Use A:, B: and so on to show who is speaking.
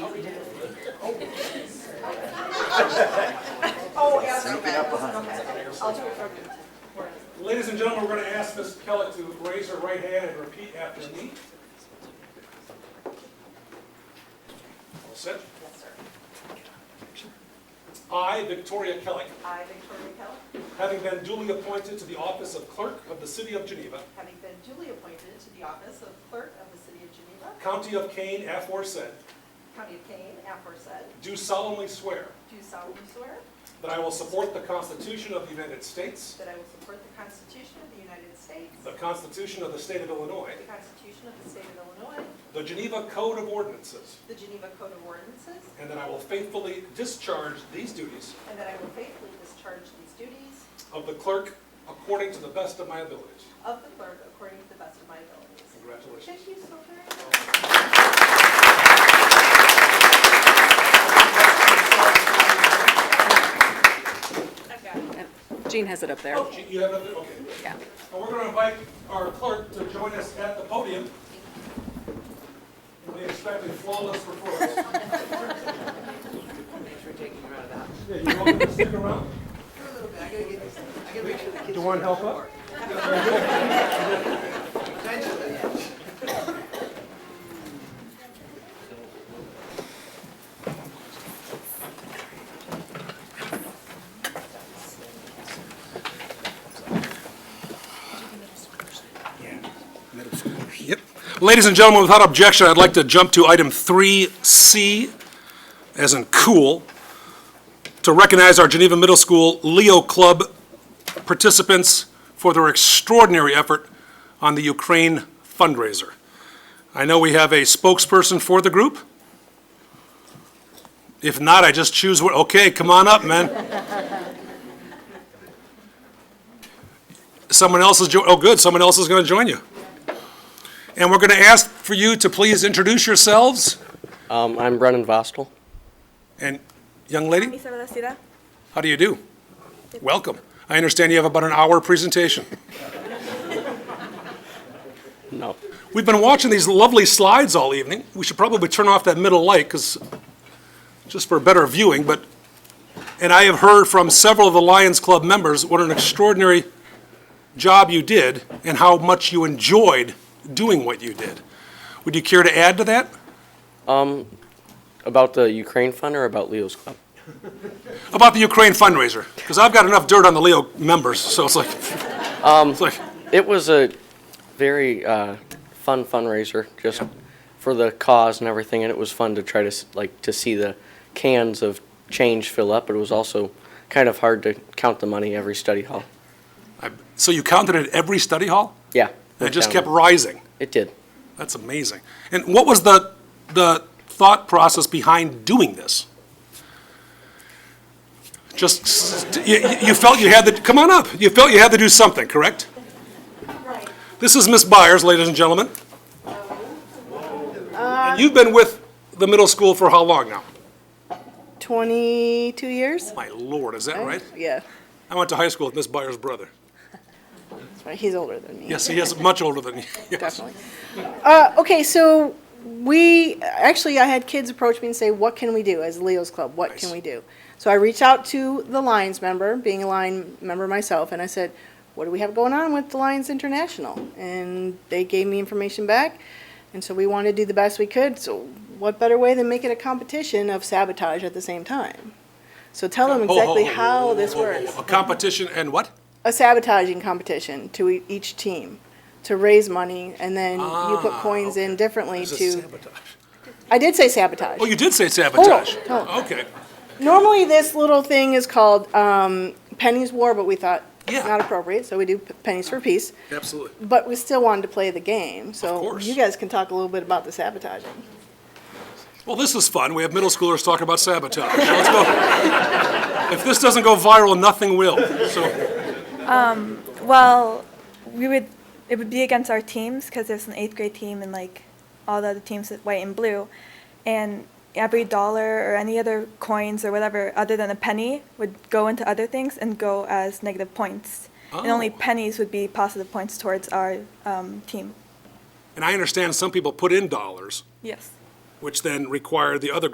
A: Oh, absolutely.
B: Something up behind
A: Okay. I'll do it for you.
C: Ladies and gentlemen, we're going to ask Ms. Kellett to raise her right hand and repeat after me. All set?
A: Yes, sir.
C: I, Victoria Kellett,
A: I, Victoria Kell,
C: having been duly appointed to the office of clerk of the City of Geneva,
A: having been duly appointed to the office of clerk of the city of Geneva,
C: County of Kane, aforesaid,
A: county of Kane, aforesaid,
C: do solemnly swear
A: do solemnly swear
C: that I will support the Constitution of the United States,
A: that I will support the Constitution of the United States,
C: the Constitution of the State of Illinois,
A: the Constitution of the state of Illinois,
C: the Geneva Code of Ordinances,
A: the Geneva Code of Ordinances,
C: and that I will faithfully discharge these duties
A: and that I will faithfully discharge these duties
C: of the clerk according to the best of my abilities.
A: of the clerk according to the best of my abilities.
C: Congratulations.
A: Thank you so very much.
D: Jean has it up there.
C: Oh, you have another, okay.
D: Yeah.
C: And we're going to invite our clerk to join us at the podium. We expect a flawless performance.
E: Thanks for taking her out of the house.
C: Yeah, You're welcome to stick around.
E: I gotta get, I gotta make sure the kids.
F: Do you want help up?
E: Potentially, yes.
C: Yep. Ladies and gentlemen, without objection, I'd like to jump to item 3C, as in cool, to recognize our Geneva Middle School Leo Club participants for their extraordinary effort on the Ukraine fundraiser. I know we have a spokesperson for the group. If not, I just choose, one- okay, come on up, man. Someone else is, jo- oh, good, someone else is going to join you. And we're going to ask for you to please introduce yourselves.
G: Um, I'm Brennan Vostel.
C: And, young lady,
H: Misa Balacira.
C: how do you do? Welcome. I understand you have about an hour presentation.
G: No.
C: We've been watching these lovely slides all evening. We should probably turn off that middle light, because, just for better viewing, but, and I have heard from several of the Lions Club members what an extraordinary job you did and how much you enjoyed doing what you did. Would you care to add to that?
G: Um, About the Ukraine fund or about Leo's club?
C: about the Ukraine fundraiser, because I've got enough dirt on the Leo members, so it's like, it's like,
G: It was a very uh, fun fundraiser, just for the cause and everything, and it was fun to try to s- like to see the cans of change fill up. But it was also kind of hard to count the money every study hall.
C: I- so you counted at every study hall?
G: Yeah.
C: And it just
G: down.
C: kept rising?
G: It did.
C: That's amazing. And what was the, the thought process behind doing this? Just, st- you, you- you felt you had to, come on up, you felt you had to do something, correct? This is Miss Byers, ladies and gentlemen. And you've been with the middle school for how long now?
H: 22 years?
C: My lord, is that right?
H: Yeah.
C: I went to high school with Miss Byers' brother.
H: That's right. He's older than me.
C: Yes, he is much older than you.
H: Definitely. Uh, okay, so we actually, I had kids approach me and say, What can we do as Leo's Club? What can
C: Nice.
H: we do? So I reached out to the Lions member, being a Lion member myself, and I said, What do we have going on with the Lions International? And they gave me information back. And so we wanted to do the best we could. So, what better way than make it a competition of sabotage at the same time? So, tell them
C: Ho, ho,
H: exactly
C: ho,
H: how this works.
C: A competition and what?
H: a sabotaging competition to e- each team to raise money, and then you put
C: Ah,
H: coins in differently
C: Is it
H: to.
C: sabotage?
H: I did say sabotage.
C: Oh, you did say sabotage.
H: Hold on.
C: Okay.
H: Normally, this little thing is called um, pennies war, but we thought
C: Yeah.
H: not appropriate, so we do p- pennies for peace.
C: Absolutely.
H: But we still wanted to play the game, so
C: course.
H: you guys can talk a little bit about the sabotaging.
C: Well, this is fun. We have middle schoolers talking about sabotage. Let's go. If this doesn't go viral, nothing will. So,
I: Well, we would. It would be against our teams because there's an eighth grade team and like all the other teams with white and blue, and every dollar or any other coins or whatever other than a penny would go into other things and go as negative points, and only
C: Oh.
I: pennies would be positive points towards our um, team.
C: and I understand some people put in dollars,
I: Yes.
C: which then require the other